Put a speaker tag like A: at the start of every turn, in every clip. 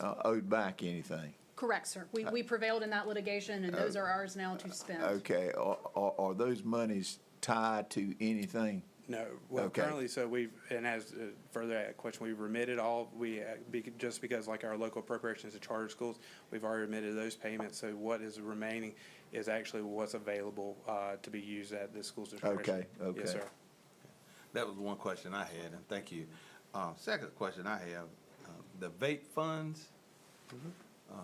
A: uh, owed back anything?
B: Correct, sir. We, we prevailed in that litigation, and those are ours now to spend.
A: Okay, are, are, are those monies tied to anything?
C: No, well,
A: Okay.
C: currently, so we've, and as uh, further that question, we've remitted all, we, uh, be- just because like our local appropriations to charter schools, we've already remitted those payments, so what is remaining is actually what's available uh, to be used at the school's discretion.
A: Okay, okay.
C: Yes, sir.
D: That was one question I had, and thank you. Uh, second question I have, uh, the vape funds. Um,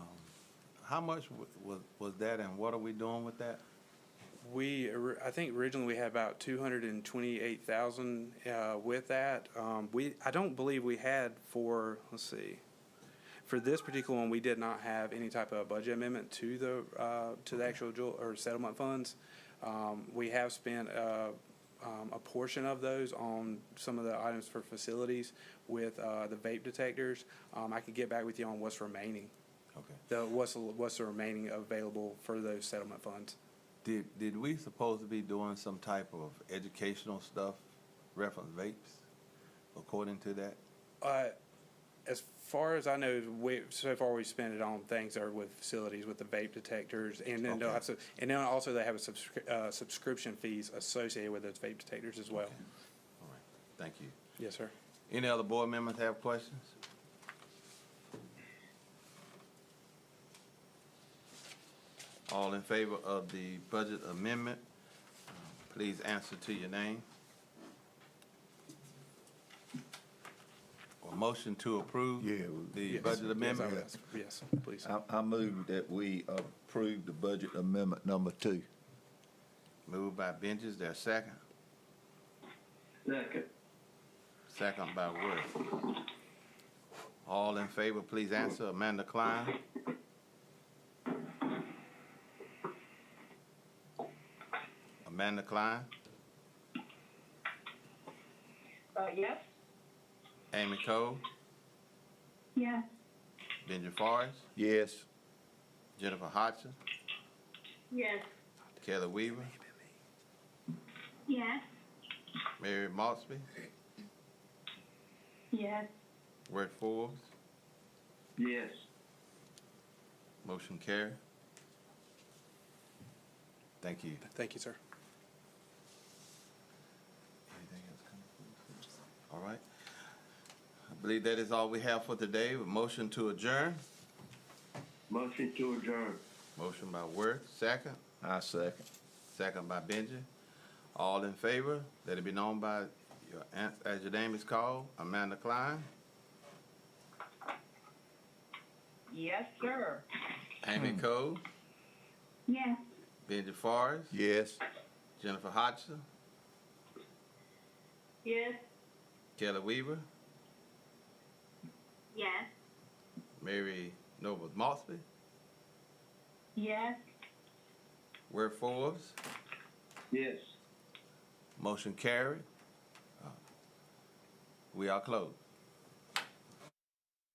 D: How much wa- was, was that and what are we doing with that?
C: We, or- I think originally we had about two hundred and twenty-eight thousand, uh, with that. Um, we, I don't believe we had for, let's see, for this particular one, we did not have any type of budget amendment to the, uh, to the actual jewel, or settlement funds. Um, we have spent, uh, um, a portion of those on some of the items for facilities with, uh, the vape detectors. Um, I could get back with you on what's remaining,
D: Okay.
C: the, what's, what's the remaining available for those settlement funds.
D: Did, did we supposed to be doing some type of educational stuff, reference vapes, according to that?
C: Uh, as far as I know, we so far we spent it on things that are with facilities, with the vape detectors, and then they'll
D: Okay.
C: have to, and then also they have a subscri- uh, subscription fees associated with those vape detectors as well.
D: All right, thank you.
C: Yes, sir.
D: Any other board members have questions? All in favor of the budget amendment, uh, please answer to your name. Or motion to approve
A: Yeah, we-
D: the
C: Yes.
D: budget
C: Yes, I would
D: amendment.
C: ask. Yes, please.
A: I, I move that we approve the budget amendment number two.
D: Moved by Benji, there a second?
E: Second.
D: Second by Worth. All in favor, please answer. Amanda Klein. Amanda Klein,
F: Uh, yes?
D: Amy Cole,
F: Yes.
D: Benji Forrest,
A: Yes.
D: Jennifer Hodgson,
F: Yes.
D: Kelly Weaver,
F: Yes.
D: Mary Maltsby,
F: Yes.
D: Worth Forbes.
E: Yes.
D: Motion carry. Thank you.
C: Thank you, sir.
D: Anything else coming? All right. I believe that is all we have for today. Motion to adjourn.
E: Motion to adjourn.
D: Motion by Worth, second.
A: I second.
D: Second by Benji. All in favor, let it be known by your, an- as your name is called, Amanda Klein,
F: Yes, sir.
D: Amy Cole,
F: Yes.
D: Benji Forrest,
A: Yes.
D: Jennifer Hodgson,
F: Yes.
D: Kelly Weaver,
F: Yes.
D: Mary Noble Maltsby,
F: Yes.
D: Ware Forbes,
E: Yes.
D: motion carried. Uh, We are closed.